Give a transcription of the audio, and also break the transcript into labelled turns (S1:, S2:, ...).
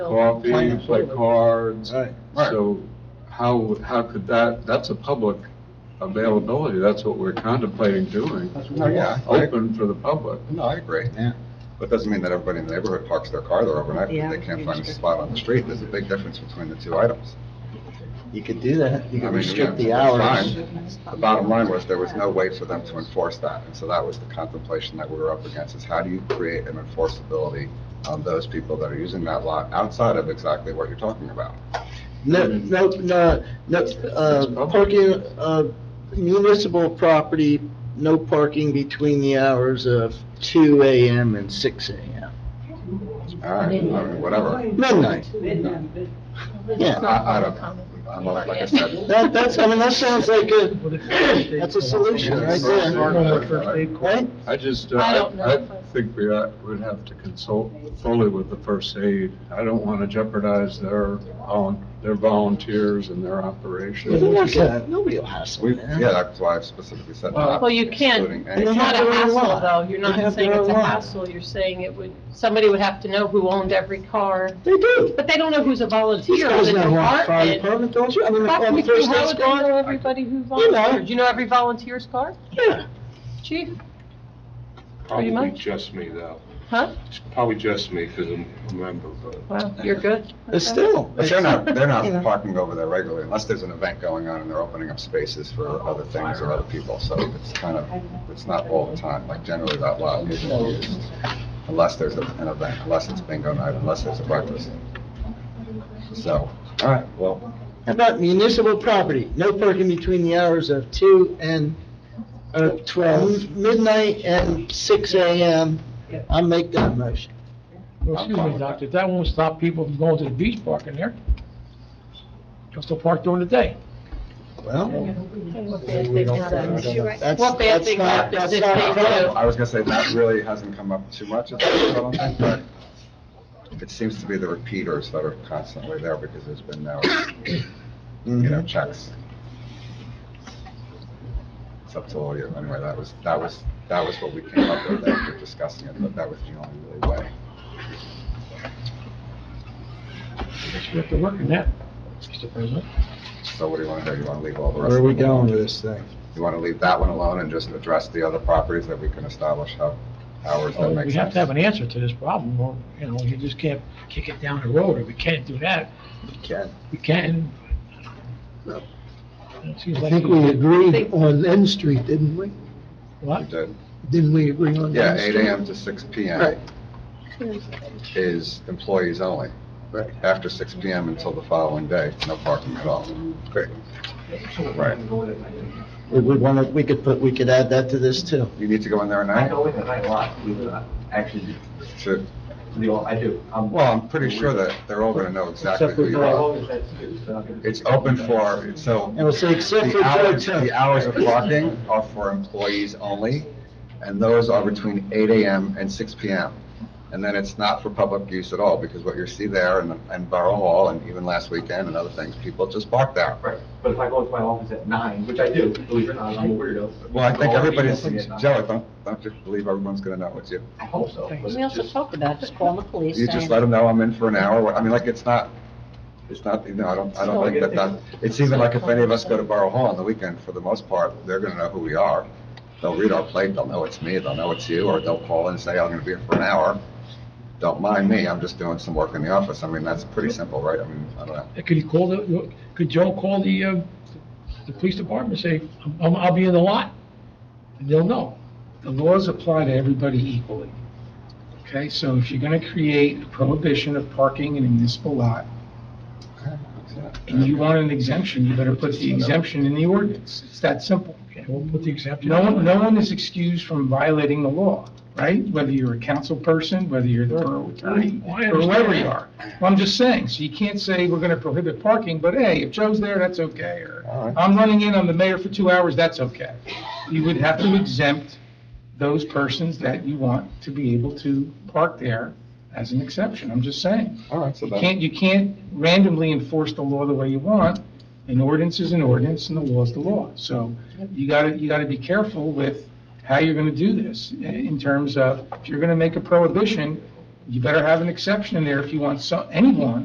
S1: coffee, play cards.
S2: Right.
S1: So how, how could that, that's a public availability, that's what we're contemplating doing,
S2: That's
S3: No,
S2: what we
S3: yeah.
S2: want.
S1: open for the public.
S3: No, I agree.
S2: Yeah.
S3: But it doesn't mean that everybody in the neighborhood parks their car there overnight
S4: Yeah.
S3: because they can't find a spot on the street. There's a big difference between the two items.
S2: You could do that, you
S3: I
S2: could
S3: mean,
S2: restrict
S3: yeah,
S2: the
S3: it's
S2: hours.
S3: fine. The bottom line was there was no way for them to enforce that. And so that was the contemplation that we were up against is how do you create an enforceability on those people that are using that lot outside of exactly what you're talking about?
S2: No, no, no, no, uh, parking, uh, municipal property, no parking between the hours of two AM and six AM.
S3: All right, I mean, whatever.
S2: Midnight. Yeah,
S3: I, I don't, I'm not, like I said.
S2: that, that's, I mean, that sounds like a, that's a solution right there, right?
S1: I just, uh,
S5: I don't know
S1: I
S5: if I-
S1: think we uh, would have to consult fully with the first aid. I don't want to jeopardize their, volun- their volunteers and their
S2: Well, they're
S1: operation.
S2: not gonna- Nobody will hassle
S3: We,
S2: them.
S3: yeah, that's why I specifically said
S2: Well-
S3: that.
S5: Well, you can. It's not a hassle, though.
S2: They
S5: You're not
S2: have
S5: saying
S2: their
S5: it's a
S2: own lot.
S5: hassle. You're saying it would, somebody would have to know who owned every car.
S2: They do.
S5: But they don't know who's a
S2: These
S5: volunteer in
S2: guys
S5: the
S2: know what fire department,
S5: department.
S2: don't you? I mean, the
S5: Fuck me
S2: the
S5: through,
S2: first
S5: How
S2: aid
S5: would they know
S2: squad,
S5: everybody who volunteers? You know every volunteer's car,
S2: yeah.
S5: chief? Pretty
S6: Probably
S5: much.
S6: just me, though.
S5: Huh?
S6: It's Probably just me, because I'm a member, but.
S5: Well, you're good.
S2: But still.
S3: But they're not, they're
S2: You
S3: not
S2: know.
S3: parking over there regularly unless there's an event going on and they're opening up spaces for other things or other people. So it's kind of, it's not all the time, like generally that lot isn't used unless there's a- an event, unless it's bingo night, unless there's a breakfast. So, all right, well,
S2: How about municipal property? No parking between the hours of two and, uh, twelve, midnight and six AM. I'll make that motion.
S7: Well, Excuse me, doctor, that won't stop people from going to the beach park in there. They'll still park during the day.
S2: Well, that's,
S5: What bad
S2: that's
S5: thing
S2: not,
S5: happens
S2: that's
S5: if
S2: not a
S5: they
S2: problem.
S5: do?
S3: I was gonna say that really hasn't come up too much, I don't think, but it seems to be the repeaters that are constantly there because there's been no, you
S2: Mm-hmm.
S3: know, checks. It's up to all you, anyway, that was, that was, that was what we came up with after discussing it, but that was the only really way.
S7: You have to work in that, Mr. President.
S3: So what do you wanna do, you wanna leave all the rest?
S2: Where are we
S3: of them alone?
S2: going with this thing?
S3: You wanna leave that one alone and just address the other properties that we can establish how, hours that make sense?
S7: Oh, We have to have an answer to this problem, or, you know, you just can't kick it down the road, or we can't do that,
S2: Ken?
S7: we can't. It seems
S8: I
S7: like.
S8: think we agreed on N Street, didn't we?
S3: You
S7: What?
S3: did.
S8: Didn't we agree on
S3: Yeah,
S8: N
S3: eight
S8: Street?
S3: AM to six PM
S8: Right.
S3: is employees only.
S8: Right.
S3: After six PM until the following day, no parking at all. Great. Right.
S2: We, we wanna, we could put, we could add that to this too.
S3: You need to go in there at
S9: I
S3: night?
S9: go in at night a lot, believe it or not. actually,
S3: to-
S9: the old- I do. Um, I'm-
S3: Well, I'm pretty sure that they're all gonna know exactly who you
S9: Well, I've
S3: are.
S9: always had students, so I'm gonna-
S3: It's open for, so.
S2: And we'll say except for
S3: The hours,
S2: Joe Temp.
S3: the hours of parking are for employees only, and those are between eight AM and six PM. And then it's not for public use at all, because what you see there and, and Borough Hall, and even last weekend and other things, people just park there.
S9: Right, but if I go into my office at nine, which I do, believe it or not, I'm a weirdo.
S3: Well, I think
S9: I'll be
S3: everybody's,
S9: open at nine.
S3: Joe, I don't, don't you believe everyone's gonna know it's you?
S9: I hope so. but
S4: We also
S9: just-
S4: talked about just calling the police.
S3: You just
S4: saying-
S3: let them know I'm in for an hour, I mean, like, it's not, it's not, you know, I don't, I don't think that that, it's even like if any of us go to Borough Hall on the weekend, for the most part, they're gonna know who we are. They'll read our plate, they'll know it's me, they'll know it's you, or they'll call and say, I'm gonna be here for an hour. Don't mind me, I'm just doing some work in the office, I mean, that's pretty simple, right? I mean, I don't know.
S7: Could he call the, could Joe call the, uh, the police department, and say, I'm, I'll be in the lot? And they'll know.
S10: the laws apply to everybody equally. Okay, so if you're going to create a prohibition of parking in a municipal lot, and you want an exemption, you better put the exemption in the ordinance. It's that simple.
S7: Okay, we'll put the exemption.
S10: No one, no one is excused from violating the law, right? Whether you're a council person, whether you're the borough attorney,
S7: Well, I
S10: or whoever
S7: understand
S10: you are. Well, I'm just saying, so you can't say we're going to prohibit parking, but hey, if Joe's there, that's okay,
S3: All
S10: or
S3: right.
S10: I'm running in on the mayor for two hours, that's okay. You would have to exempt those persons that you want to be able to park there as an exception, I'm just saying.
S3: All right, so
S10: You
S3: then,
S10: can't, you can't randomly enforce the law the way you want. An ordinance is an ordinance and the law is the law. So you gotta, you gotta be careful with how you're gonna do this in terms of, if you're gonna make a prohibition, You better have an exception in there if you want so, anyone